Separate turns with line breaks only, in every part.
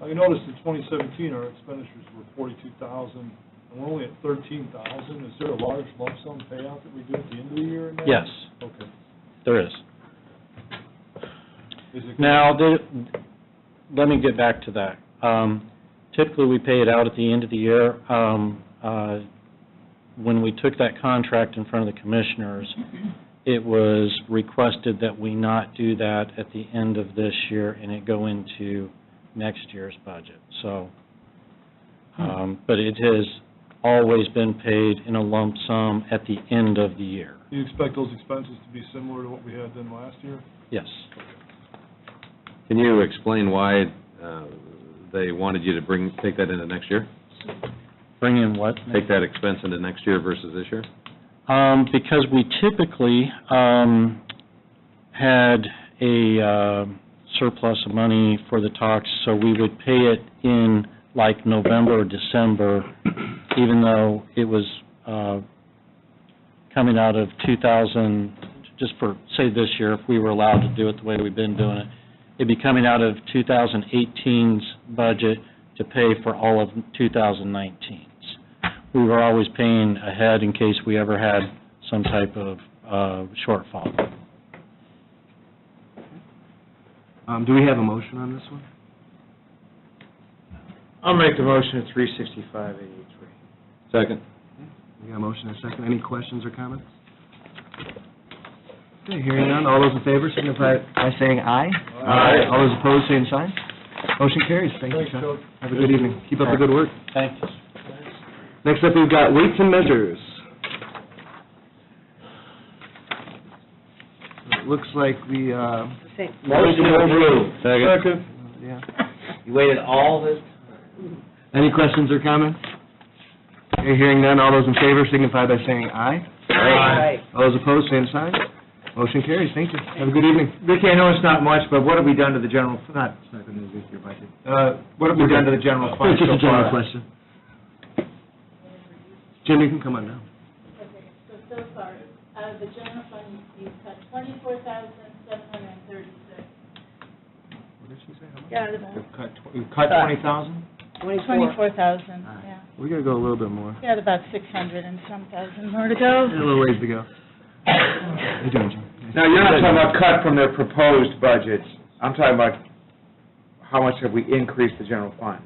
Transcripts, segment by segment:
Now, you notice in twenty seventeen, our expenditures were forty-two thousand, and we're only at thirteen thousand. Is there a large lump sum payout that we do at the end of the year in that?
Yes,
Okay.
there is.
Is it-
Now, the, let me get back to that. Um, typically, we pay it out at the end of the year. Um, uh, when we took that contract in front of the commissioners, it was requested that we not do that at the end of this year and it go into next year's budget, so.
Hmm.
uh,
Um, but it has always been paid in a lump sum at the end of the year,
Do you expect those expenses to be similar to what we had then last year?
yes.
Can you explain why uh, they wanted you to bring, take that into next year?
Bring in what?
Take that expense into next year versus this year?
Um, because we typically, um, had a, uh, surplus of money for the talks, so we would pay it in like November or December, even though it was, uh, coming out of two thousand, just for, say this year, if we were allowed to do it the way we've been doing it, it'd be coming out of 2018's budget to pay for all of 2019's we were always paying ahead in case we ever had some type of uh, shortfall.
Um, do we have a motion on this one?
I'll make the motion at three sixty-five eighty-three.
Second.
We got a motion and a second. Any questions or comments? Okay, hearing none. All those in favor signify by saying aye.
Aye.
All those opposed, same sign. Motion carries. Thank you,
Thanks,
Chuck.
Chuck.
Have a good evening. Keep up the good work.
Thank you.
Next up, we've got weights and measures. It looks like we, uh,
Motion to approve.
Second.
yeah.
You waited all this
Any questions or comments? Okay, hearing none. All those in favor signify by saying aye.
time?
All those opposed, same sign. Motion carries. Thank you. Have a good evening.
Vicki, I know it's not much, but what have we done to the general, not, it's not gonna be your budget. Uh, what have we done to the general fund
It's just
so
a general
far?
question. Jim, you can come on now.
Okay, so, so far, out of the general fund, you've cut twenty-four thousand, seven hundred and thirty-six.
Yeah,
We've cut tw- we've cut twenty thousand?
Twenty-four thousand, yeah.
We gotta go a little bit more.
You had about six hundred and some thousand more to go.
A little ways to go. How you doing, Jim?
Now, you're not talking about cut from their proposed budgets. I'm talking about how much have we increased the general fund?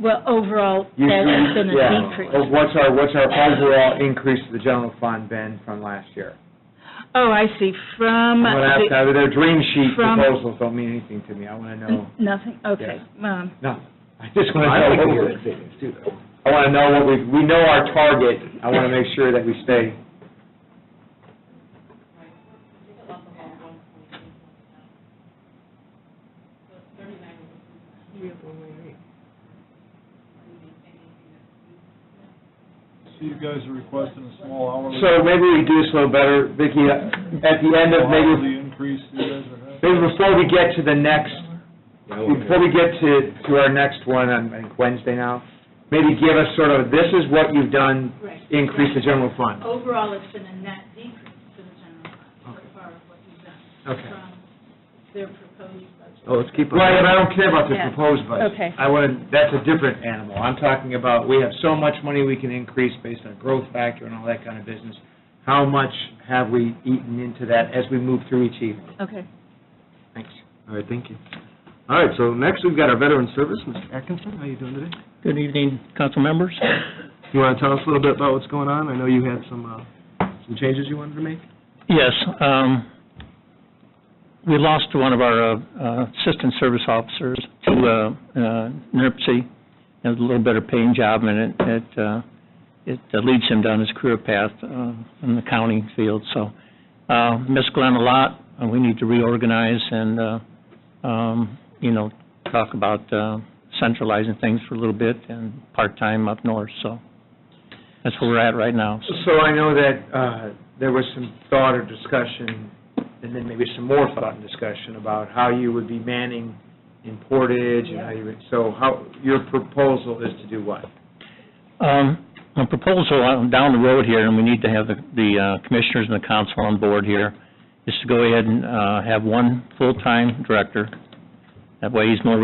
Well, overall,
You-
that's been
yeah.
a decrease.
Well, What's our, what's our overall increase to the general fund been from last year?
Oh, I see, from,
I'm gonna ask,
the-
now, their dream sheet
From-
proposals don't mean anything to me. I wanna know,
nothing, okay. Um,
no, I just wanna
I think
know
we
what we're,
did too, though.
I wanna know what we, we know our target. I wanna make sure that we stay.
So you guys are requesting a small hourly.
So maybe we do this a little better, Vicki, at the end of maybe,
Hourly increase you guys are having.
maybe before we get to the next, before we get to, to our next one, on, I think Wednesday now, maybe give us sort of, this is what you've done,
Right.
increase the general fund.
Overall, it's been a net decrease to the general fund, so far as what you've done.
Okay.
From their proposed budget.
Oh, let's keep up.
Right, and I don't care about the
Yeah.
proposed budget.
Okay.
I want, that's a different animal. I'm talking about, we have so much money we can increase based on growth factor and all that kind of business. How much have we eaten into that as we move through each evening?
okay.
Thanks.
All right, thank you. All right, so next we've got our veteran service. Mr. Atkinson, how you doing today?
Good evening, council members.
You wanna tell us a little bit about what's going on? I know you had some, uh, some changes you wanted to make.
Yes, um, we lost one of our uh, uh, assistant service officers to uh, uh, NERC. It was a little better paying job, and it- it uh, it uh, leads him down his career path uh, in the accounting field. So uh, miss Glenn a lot, and we need to reorganize and, uh, um, you know, talk about uh, centralizing things for a little bit and part-time up north. So that's where we're at right now. So-
So I know that uh, there was some thought or discussion, and then maybe some more thought and discussion about how you would be manning in Portage and how you would, so how, your proposal is to do what?
Um, A proposal on- down the road here, and we need to have the- the uh, commissioners and the council on board here, is to go ahead and uh, have one full-time director. That way he's more